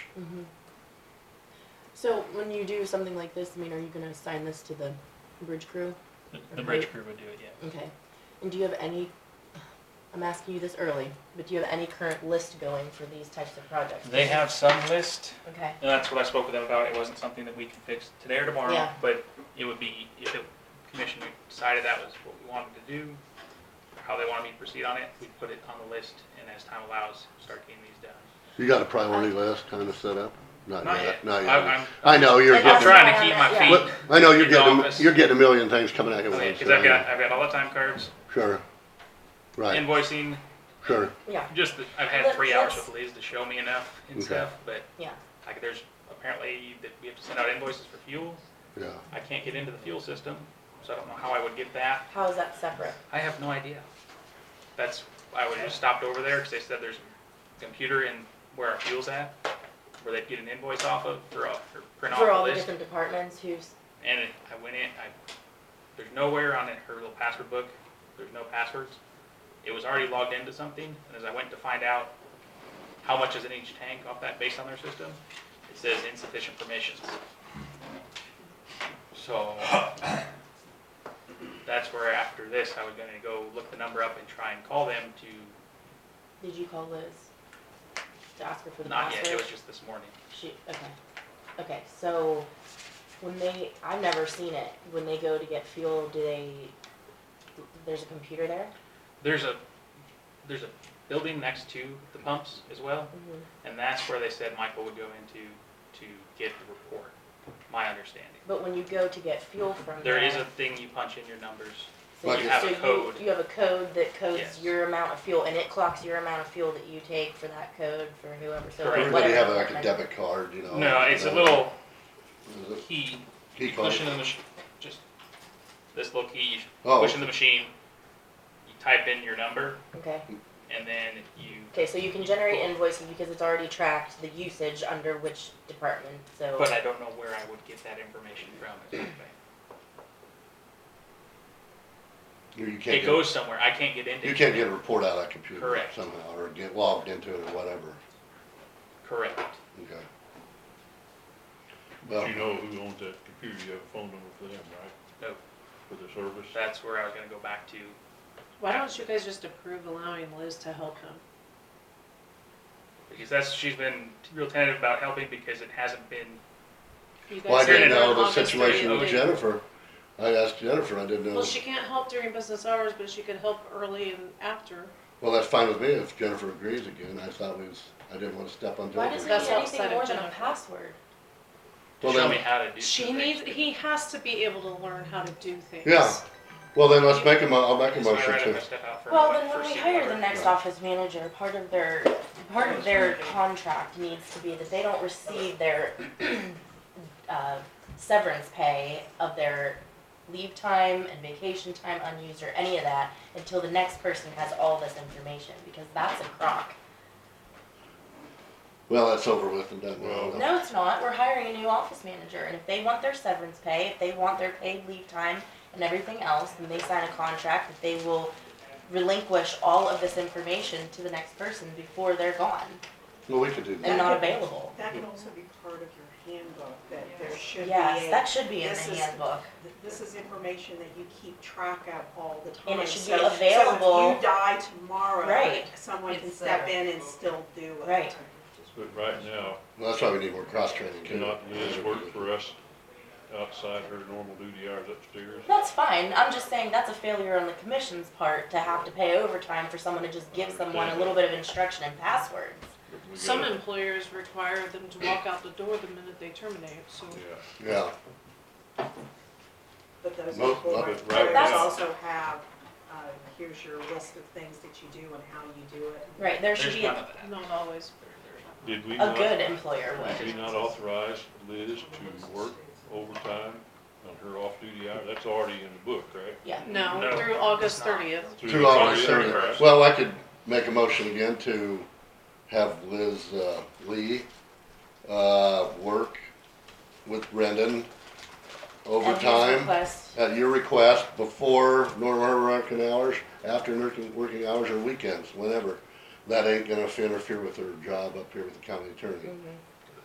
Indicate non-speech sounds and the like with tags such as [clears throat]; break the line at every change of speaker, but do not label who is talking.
Mhm. So when you do something like this, I mean, are you gonna assign this to the bridge crew?
The,
Okay.
the bridge crew would do it, yeah.
Okay. And do you have any, I'm asking you this early, but do you have any current list going for these types of projects?
They have some list,
Okay,
and that's what I spoke with them about. It wasn't something that we can fix today or tomorrow,
Yeah.
but it would be, if the commission decided that was what we wanted to do, how they wanted me to proceed on it, we put it on the list, and as time allows, start getting these done.
You got a priority list kind of set up? Not
Not
yet,
yet.
Uh, not
I- I'm-
yet. I know, you're
I'm
I'm
getting,
trying to keep my
Yeah.
well,
feet,
I know, you're
in the
getting,
office.
you're getting a million things coming at you at once.
because I've
yeah, I
got, I've got all the time cards,
know. Sure, um, right,
invoicing,
sure,
yeah,
just, the- I've had
Let-
three hours
let's-
with Liz to show me enough and
Okay.
stuff, but
yeah.
like, there's, apparently, that we have to send out invoices for fuel.
yeah.
I can't get into the fuel system, so I don't know how I would get that.
How is that separate?
I have no idea. That's, I would have just stopped over there, because they said there's a computer in where our fuel's at, where they'd get an invoice off of, or, a- or print
For all
off
the
the list.
different departments who's,
And it- I went in, I, there's nowhere on it, her little password book, there's no passwords. It was already logged into something, and as I went to find out how much is in each tank off that based on their system, it says insufficient permissions. So, that's where after this, I was gonna go look the number up and try and call them to,
did you call Liz? To ask her for the
not yet, it
password?
was just this morning.
She, okay, okay, so when they, I've never seen it, when they go to get fuel, do they, there's a computer there?
There's a, there's a building next to the pumps as well,
Mhm.
And that's where they said Michael would go into to get the report, my understanding.
But when you go to get fuel from
There
there.
is a thing you punch in your numbers.
So
Like
you-
have a
so you-
code.
You have a code that codes
Yes.
your amount of fuel, and it clocks your amount of fuel that you take for that code for whoever, so.
Correct.
Everybody
whatever
have like a
department-
debit card, you know?
No, it's a
uh,
little
is it?
key,
Key
you push
card.
in the machine, just this little key, you
Oh,
push in the machine, you type in your number,
Okay,
and then you,
okay, so you can generate invoices because it's already tracked the usage under which department, so.
but I don't know where I would get that information from. exactly.
You you can't
It
get,
goes somewhere, I can't get into it.
you can't get a report out of that computer
Correct.
somehow, or get logged into it or whatever,
Correct.
okay. Well,
You know who owns that computer, you have a phone number for them, right?
No.
For the service?
That's where I was gonna go back to.
Why don't you guys just approve allowing Liz to help him?
Because that's, she's been real tentative about helping because it hasn't been
You guys
well, I didn't
have
know
an
the
office
situation
during
you
with
the-
Jennifer, I asked Jennifer, I didn't know.
Well, she can't help during business hours, but she could help early and after.
Well, that's fine with me if Jennifer agrees again. I thought we was, I didn't want to step on
Why
Jennifer's.
does it
That's
need
toes.
anything
outside of
more than a
Jennifer.
password?
to
Well,
show me
then,
how to do.
She
some things,
needs,
but-
he has to be able to learn how to do things.
Yeah. well, then let's make a mo, I'll make a
Is my write-up
motion
I
to,
step out for-
Well, then
for
when we
seat
hire
cover?
the next
Yeah.
office manager, part of their, part of their contract needs to be that they don't receive their, [clears throat] uh, severance pay of their leave time and vacation time unused or any of that until the next person has all this information, because that's a crock.
well, that's over with and done.
Well-
with.
No, it's not, we're hiring a new office manager, and if they want their severance pay, if they want their paid leave time and everything else, then they sign a contract that they will relinquish all of this information to the next person before they're gone.
Well, we could do that.
and not available.
That can also be part of your handbook, that there should be
Yes,
a,
that should be in
This
the
is-
handbook.
this is information that you keep track of all the time.
And it should be
So- So if
available.
you die tomorrow,
Right.
someone can
It's
step
there.
in and still do it.
Right.
But right now,
Well, that's why we need more cross training.
cannot Liz work for us outside her normal duty hours upstairs?
That's fine, I'm just saying that's a failure on the commission's part to have to pay overtime for someone to just give someone a little bit of instruction and passwords.
We
Some
gotta-
employers require them to walk out the door the minute they terminate, so.
Yeah,
Yeah,
But those
Most
people
of
are-
it right
others
now.
also have, uh, here's your list of things that you do and how you do it.
Right, there should
There's
be
none
a,
of that.
Not always.
Did we
a
not,
good employer
did we
would.
not authorize Liz to work overtime on her off-duty hour? That's already in the book, right?
Yeah,
No,
No,
through August
it's not.
thirtieth.
Through
two
the
hours,
30th.
thirty. Well, I could make a motion again to have Liz, uh, Lee, uh, work with Brendan
and his
overtime.
request-
At your request, before normal working hours, after working, working hours or weekends, whenever. That ain't gonna interfere with her job up here with the county attorney.
Mhm.